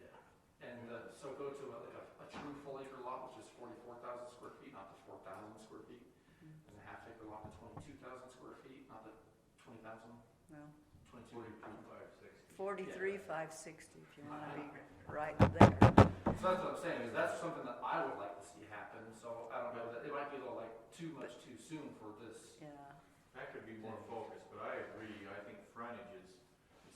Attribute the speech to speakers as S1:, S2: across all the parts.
S1: uh, lot, which is forty-four thousand square feet, not the four thousand square feet.
S2: Mm-hmm.
S1: And a half acre lot, the twenty-two thousand square feet, not the twenty thousand,
S2: Well,
S1: twenty-two.
S3: Forty-five, sixty.
S2: forty-three, five sixty, if you wanna be
S1: So
S2: right there.
S1: that's what I'm saying, is that's something that I would like to see happen, so I don't know, that it might be a little like too much too soon for this.
S2: Yeah,
S3: That could be more focused, but I agree, I think frontage is,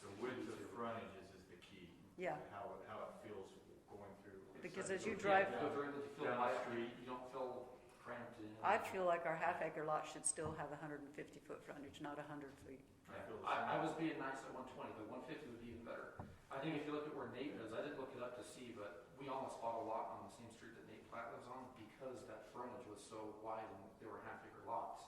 S3: the width of frontage is, is the key.
S2: yeah,
S3: How, it- how it feels going through. It's
S2: Because
S3: like
S2: as you
S3: go
S2: drive-
S3: down-
S1: Go through, you feel
S3: Down the
S1: light,
S3: street.
S1: you don't feel cramped in.
S2: I feel like our half acre lot should still have hundred and fifty foot frontage, not hundred feet.
S1: Yeah, I, I was being nice at one twenty, but one fifty would be even better. I think if you look at where Nate lives, I didn't look it up to see, but we almost bought a lot on the same street that Nate Platt lives on because that frontage was so wide and they were half acre lots.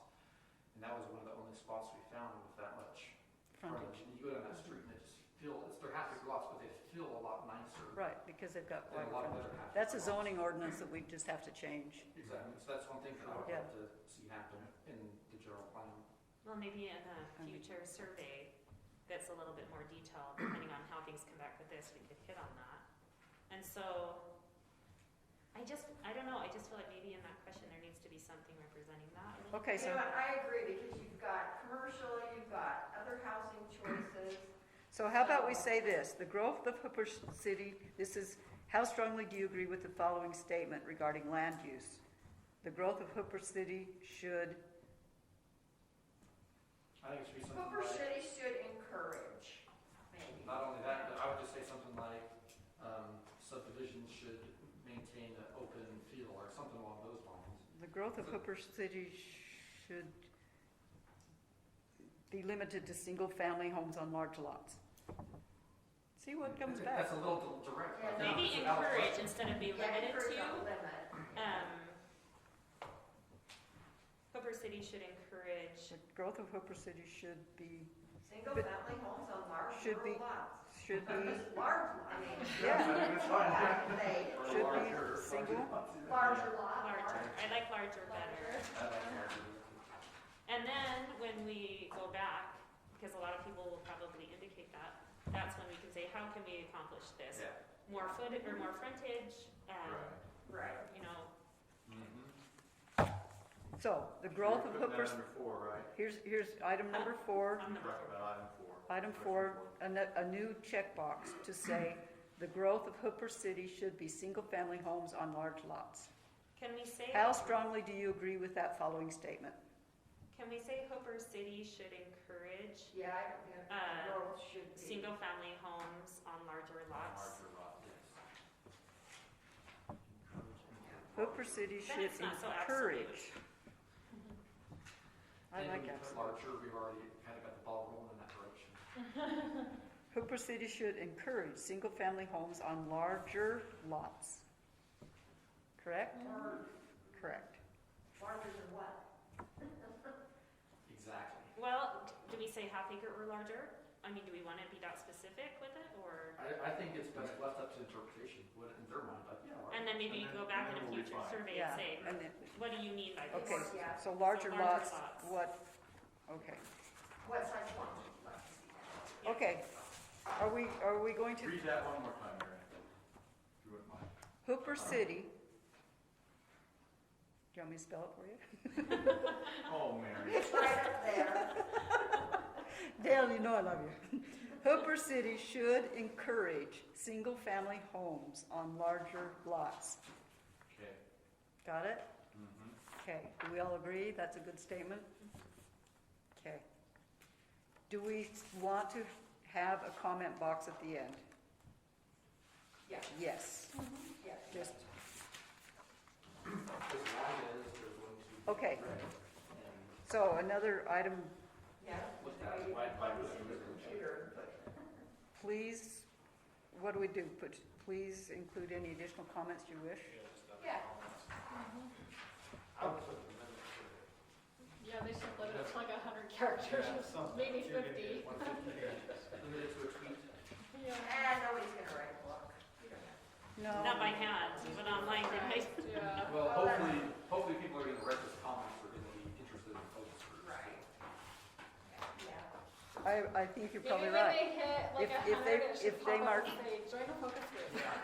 S1: And that was one of the only spots we found with that much frontage.
S2: Frontage,
S1: And you go down that street and it's feel, it's, they're half acre lots, but they feel a lot nicer
S2: right, because they've got
S1: than a
S2: wider
S1: lot of
S2: frontage.
S1: other half.
S2: That's a
S1: acre lots.
S2: zoning ordinance that we just have to change.
S1: Exactly, so that's one thing that I would
S2: Yeah.
S1: like to see happen in the general plan.
S4: Well, maybe in a future survey that's a little bit more detailed, depending on how things come back with this, we could hit on that. And so, I just, I don't know, I just feel like maybe in that question, there needs to be something representing that. a little
S2: Okay,
S5: You
S2: so,
S5: know, what, I agree, because you've got commercial, you've got other housing choices.
S2: so how about we say this, the growth of Hooper City, this is, how strongly do you agree with the following statement regarding land use? The growth of Hooper City should,
S1: I think it should be something
S5: Hooper
S1: like.
S5: City should encourage, maybe.
S1: Not only that, but I would just say something like, um, subdivisions should maintain an open field or something along those lines.
S2: the growth of Hooper City should be limited to single-family homes on large lots. See what comes
S1: That's-
S2: back.
S1: That's a little direct. but I think
S4: Maybe
S1: it's a valid
S4: encourage
S1: question.
S4: instead of be
S5: Yeah,
S4: limited
S5: encourage,
S4: to,
S5: not limit.
S4: um, Hooper City should encourage,
S2: The growth of Hooper City should be, But-
S5: Single-family homes on large
S2: Should
S5: rural
S2: be-
S5: lots.
S2: should be,
S5: Large, I mean.
S2: Yeah.
S1: That's fine.
S5: Yeah,
S1: Or
S2: Should be
S1: larger.
S2: single.
S5: they- Larger lot.
S4: larger, I like larger better.
S5: Larger.
S1: I like larger.
S4: And then when we go back, because a lot of people will probably indicate that, that's when we can say, how can we accomplish this?
S1: Yeah.
S4: More foot, or more frontage, um,
S5: Right.
S4: you know,
S2: so, the growth of
S3: Mm-hmm. You're putting
S2: Hooper,
S3: that under four, right?
S2: here's, here's item number four,
S4: on the.
S3: Talk about item four.
S2: Item
S3: Question
S2: four, a, ne- a new checkbox to say, the growth of Hooper City should be single-family homes on large lots.
S4: Can we say?
S2: How strongly do you agree with that following statement?
S4: Can we say Hooper City should encourage
S5: Yeah, I don't think
S4: Uh,
S5: rural should be.
S4: single-family homes on larger lots?
S3: Larger lot.
S2: Hooper City
S4: Then
S2: should
S4: it's not so absolute.
S2: encourage. I like
S1: that.
S2: absolute.
S1: Larger, we've already kind of got the ball rolling in that direction.
S2: Hooper City should encourage single-family homes on larger lots. Correct?
S5: Or
S4: Mm-hmm.
S2: Correct.
S5: larger than what?
S1: Exactly.
S4: Well, do we say half acre or larger? I mean, do we wanna be that specific with it, or?
S1: I, I think it's best left up to interpretation, what in their mind, but yeah. larger.
S4: And then maybe
S3: And
S4: go
S3: then-
S4: back
S3: and
S4: in a
S3: then we'll
S4: future
S3: refine.
S4: survey
S2: Yeah,
S4: and say,
S2: and then,
S4: what do you mean by this?
S2: okay,
S5: Yeah.
S2: so larger
S4: larger
S2: lots,
S4: lots.
S2: what, okay,
S5: What size lot? Let's see that.
S2: okay. Are we, are we going to
S3: Read that one more time, Mary, if you wouldn't mind.
S2: Hooper City. Do you want me to spell it for you?
S3: Oh, Mary.
S5: It's right up there.
S2: Dale, you know I love you. Hooper City should encourage single-family homes on larger lots.
S3: Okay.
S2: Got it?
S3: Mhm.
S2: Okay, do we all agree that's a good statement? Okay. Do we want to have a comment box at the end?
S5: Yeah,
S2: Yes,
S5: yeah.
S2: just,
S1: As long as they're willing to.
S2: Okay.
S1: read And
S2: so another item,
S5: Yeah.
S1: look
S5: Why
S1: at
S5: you
S1: why, why.
S5: plug this into the computer and put
S2: please, what do we do? Put, please include any additional comments you wish?
S5: Yeah.
S3: I would put the minutes for it.
S6: Yeah, they should limit it to like a hundred characters,
S3: Yeah, something.
S6: maybe
S3: You're gonna get
S6: fifty.
S3: 150 pages.
S1: Limited to a tweet.
S6: Yeah.
S5: And nobody's gonna write a book. You don't have
S2: No.
S4: Not by hand, but online, right?
S6: Yeah.
S1: Well,
S5: Well, that's-
S1: hopefully, hopefully people are gonna read this comment, are gonna be interested in focus
S5: to.
S1: groups.
S5: Yeah.
S2: I, I think you're
S6: Maybe
S2: probably
S6: when
S2: right.
S6: they hit like
S2: If-
S6: a
S2: if they-
S6: hundred,
S2: if
S6: it should
S2: they
S6: pop up
S2: mark-
S6: and say, join a focus group.